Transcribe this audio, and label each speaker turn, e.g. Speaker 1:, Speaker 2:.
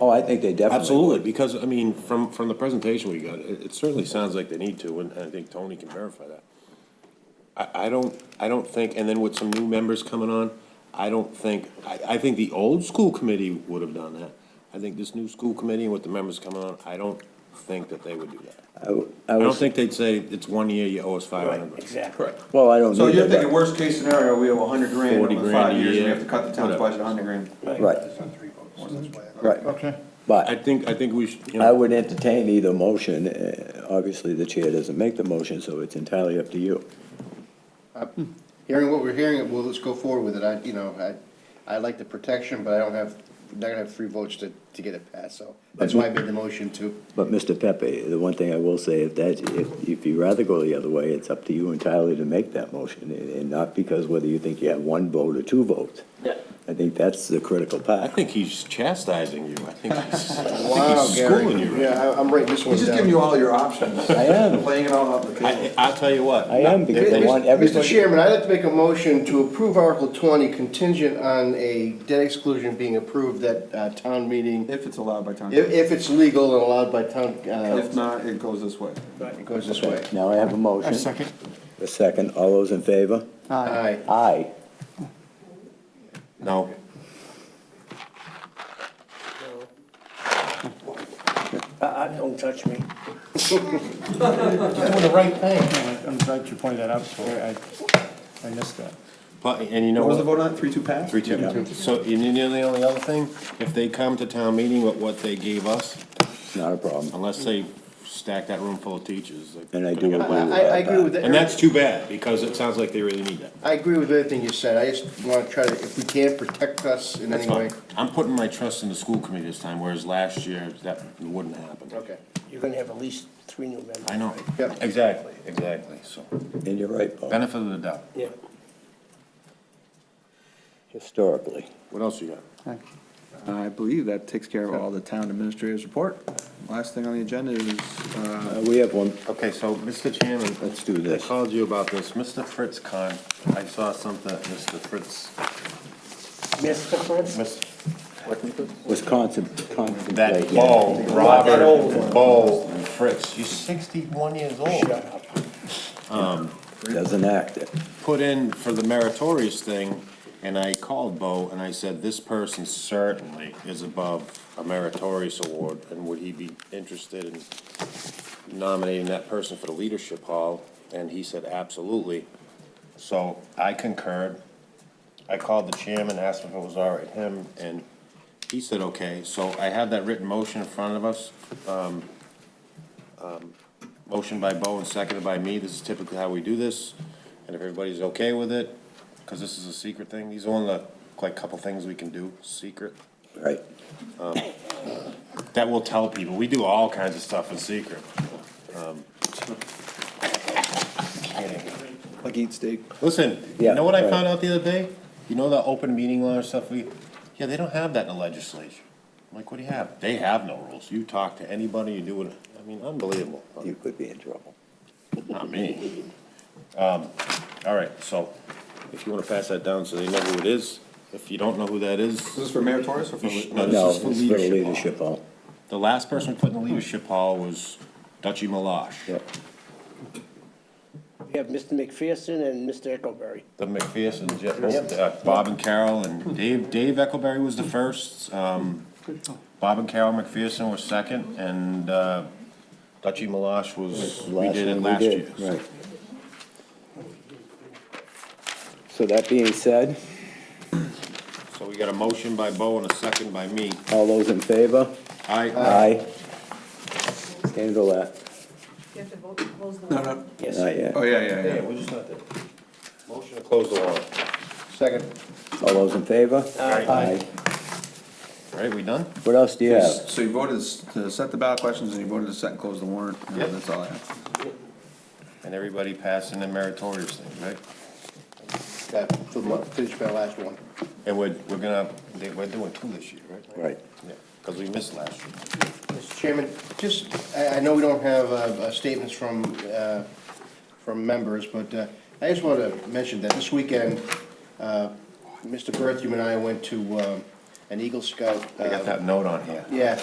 Speaker 1: Oh, I think they definitely would.
Speaker 2: Absolutely, because, I mean, from, from the presentation we got, it, it certainly sounds like they need to, and I think Tony can verify that. I, I don't, I don't think, and then with some new members coming on, I don't think, I, I think the old school committee would have done that. I think this new school committee with the members coming on, I don't think that they would do that.
Speaker 1: I w- I
Speaker 2: I don't
Speaker 1: was-
Speaker 2: think they'd say, it's one year, you owe us five hundred.
Speaker 3: Exactly.
Speaker 1: Well, I don't
Speaker 4: So
Speaker 1: need
Speaker 4: you're
Speaker 1: that.
Speaker 4: thinking worst case scenario, we have a hundred grand
Speaker 2: 40
Speaker 4: over
Speaker 2: grand
Speaker 4: five
Speaker 2: a
Speaker 4: years, and
Speaker 2: year,
Speaker 4: we have to cut the
Speaker 2: whatever.
Speaker 4: town's budget a hundred grand.
Speaker 1: Right, right.
Speaker 5: Okay.
Speaker 2: I
Speaker 1: But
Speaker 2: think, I think we should, you
Speaker 1: I
Speaker 2: know,
Speaker 1: would entertain either motion. Uh, Obviously, the chair doesn't make the motion, so it's entirely up to you.
Speaker 5: Hearing what we're hearing, well, let's go forward with it. I, you know, I, I like the protection, but I don't have, not gonna have three votes to, to get it passed, so that's why I made the motion to.
Speaker 1: But Mr. Pepe, the one thing I will say, if that, if, if you rather go the other way, it's up to you entirely to make that motion, and and not because whether you think you have one vote or two votes.
Speaker 3: Yeah.
Speaker 1: I think that's the critical
Speaker 2: I
Speaker 1: part.
Speaker 2: think he's chastising you, I think he's, I think he's schooling you. right?
Speaker 5: Yeah, I, I'm writing this one
Speaker 4: He's
Speaker 5: down.
Speaker 4: just giving you all your options,
Speaker 1: I am,
Speaker 4: laying it all out on the
Speaker 2: I,
Speaker 4: table.
Speaker 2: I'll tell you what.
Speaker 1: I am, because I want
Speaker 5: Mr.
Speaker 1: everybody.
Speaker 5: Chairman, I'd like to make a motion to approve Article twenty contingent on a debt exclusion being approved at, uh, town meeting,
Speaker 4: If it's allowed by town,
Speaker 5: if,
Speaker 4: if
Speaker 5: if it's legal and allowed by town, uh,
Speaker 4: not, it goes this way.
Speaker 5: it goes this way.
Speaker 1: Now I have a motion. A second. A second, all those in favor?
Speaker 5: Aye.
Speaker 1: Aye.
Speaker 2: No.
Speaker 3: Uh, don't touch me.
Speaker 6: Doing the right thing. I'm glad you pointed that out, so I, I missed that.
Speaker 2: But, and you know
Speaker 4: What was the
Speaker 2: what?
Speaker 4: vote on, three, two, pass?
Speaker 2: Three, two. So, and you know the only other thing, if they come to town meeting with what they gave us,
Speaker 1: It's not a problem.
Speaker 2: unless they stack that room full of teachers. like-
Speaker 1: And I do
Speaker 5: I, I I
Speaker 1: uh,
Speaker 5: agree with that.
Speaker 2: And that's too bad, because it sounds like they really need that.
Speaker 5: I agree with everything you said, I just wanna try to, if we can, protect us in
Speaker 2: That's
Speaker 5: any
Speaker 2: fine.
Speaker 5: way.
Speaker 2: I'm putting my trust in the school committee this time, whereas last year, that wouldn't happen.
Speaker 5: Okay.
Speaker 3: You're gonna have at least three new members.
Speaker 2: I know.
Speaker 5: Yeah.
Speaker 2: Exactly, exactly. So,
Speaker 1: And you're right, Paul,
Speaker 2: benefit of the doubt.
Speaker 3: Yeah.
Speaker 1: historically.
Speaker 2: What else you got?
Speaker 4: I believe that takes care of all the town administrators' report. Last thing on the agenda is, uh,
Speaker 1: Uh, We have one,
Speaker 2: Okay, so, Mr. Chairman.
Speaker 1: Let's do this.
Speaker 2: I called you about this. Mr. Fritz Kahn, I saw something, that Mr. Fritz,
Speaker 3: Mr. Fritz?
Speaker 2: Mr.
Speaker 1: Wisconsin,
Speaker 2: That
Speaker 1: contemplating.
Speaker 2: Bo,
Speaker 3: That old
Speaker 2: Robert,
Speaker 3: one.
Speaker 2: Bo Fritz, he's sixty-one years
Speaker 3: Shut
Speaker 2: old.
Speaker 3: up.
Speaker 1: Doesn't act it.
Speaker 2: Put in for the meritorious thing, and I called Bo and I said, this person certainly is above a meritorious award, and would he be interested in nominating that person for the leadership hall? And he said, absolutely. So I concurred. I called the chairman, asked him if it was all right, him, and he said, okay. So I have that written motion in front of us. Um, um, Motion by Bo and seconded by me. This is typically how we do this. And if everybody's okay with it, because this is a secret thing, these are one of the, like, couple things we can do, secret,
Speaker 1: Right.
Speaker 2: that we'll tell people. We do all kinds of stuff in secret. Um, Kidding.
Speaker 4: like eat steak.
Speaker 2: Listen, you
Speaker 1: Yeah,
Speaker 2: know what I
Speaker 1: right.
Speaker 2: found out the other day? You know the open meeting law or stuff we, yeah, they don't have that in the legislature. I'm like, what do you have? They have no rules. You talk to anybody, you do what, I mean, unbelievable.
Speaker 1: You could be in trouble.
Speaker 2: Not me. Um, all right, so if you wanna pass that down so they know who it is, if you don't know who that
Speaker 4: Is
Speaker 2: is,
Speaker 4: this for meritorious or for?
Speaker 2: You should-
Speaker 4: no,
Speaker 2: no,
Speaker 1: No, it's
Speaker 2: this is
Speaker 1: for
Speaker 2: for
Speaker 1: the
Speaker 2: leadership
Speaker 1: leadership hall.
Speaker 2: the last person put in the leadership hall was Dutchy Malash.
Speaker 1: Yep.
Speaker 3: We have Mr. McPherson and Mr. Echoberry.
Speaker 2: The McPherson, Je- uh, Bob and Carol, and Dave, Dave Eckelberry was the first, um, Bob and Carol McPherson were second, and, uh, Dutchy Malash was, we
Speaker 1: Last
Speaker 2: did it
Speaker 1: one
Speaker 2: last year.
Speaker 1: did, Right. So that being said,
Speaker 2: So we got a motion by Bo and a second by me.
Speaker 1: all those in favor?
Speaker 2: I,
Speaker 1: Aye. Handle that.
Speaker 7: You have to vote to close the warrant.
Speaker 3: Yes.
Speaker 1: Not yet.
Speaker 4: Oh,
Speaker 1: All
Speaker 4: yeah, yeah,
Speaker 2: yeah,
Speaker 4: yeah.
Speaker 2: we're just not there. Motion to close the warrant.
Speaker 5: Second.
Speaker 1: those in favor? Aye.
Speaker 2: All right, we done?
Speaker 1: What else do you have?
Speaker 4: So you voted s- to set the ballot questions and you voted to set and close the warrant. and
Speaker 2: Yep.
Speaker 4: That's all I have.
Speaker 2: And everybody passing the meritorious thing, right?
Speaker 5: That, finish my last one.
Speaker 2: And we're, we're gonna, they- we're doing two this year, right?
Speaker 1: Right.
Speaker 2: Yeah, because we missed last year.
Speaker 5: Mr. Chairman, just, I, I know we don't have, uh, uh, statements from, uh, from members, but, uh, I just wanna mention that this weekend, uh, Mr. Berthium and I went to, uh,
Speaker 2: an Eagle Scout.
Speaker 5: I got
Speaker 2: uh,
Speaker 5: that note on here.
Speaker 2: Yeah,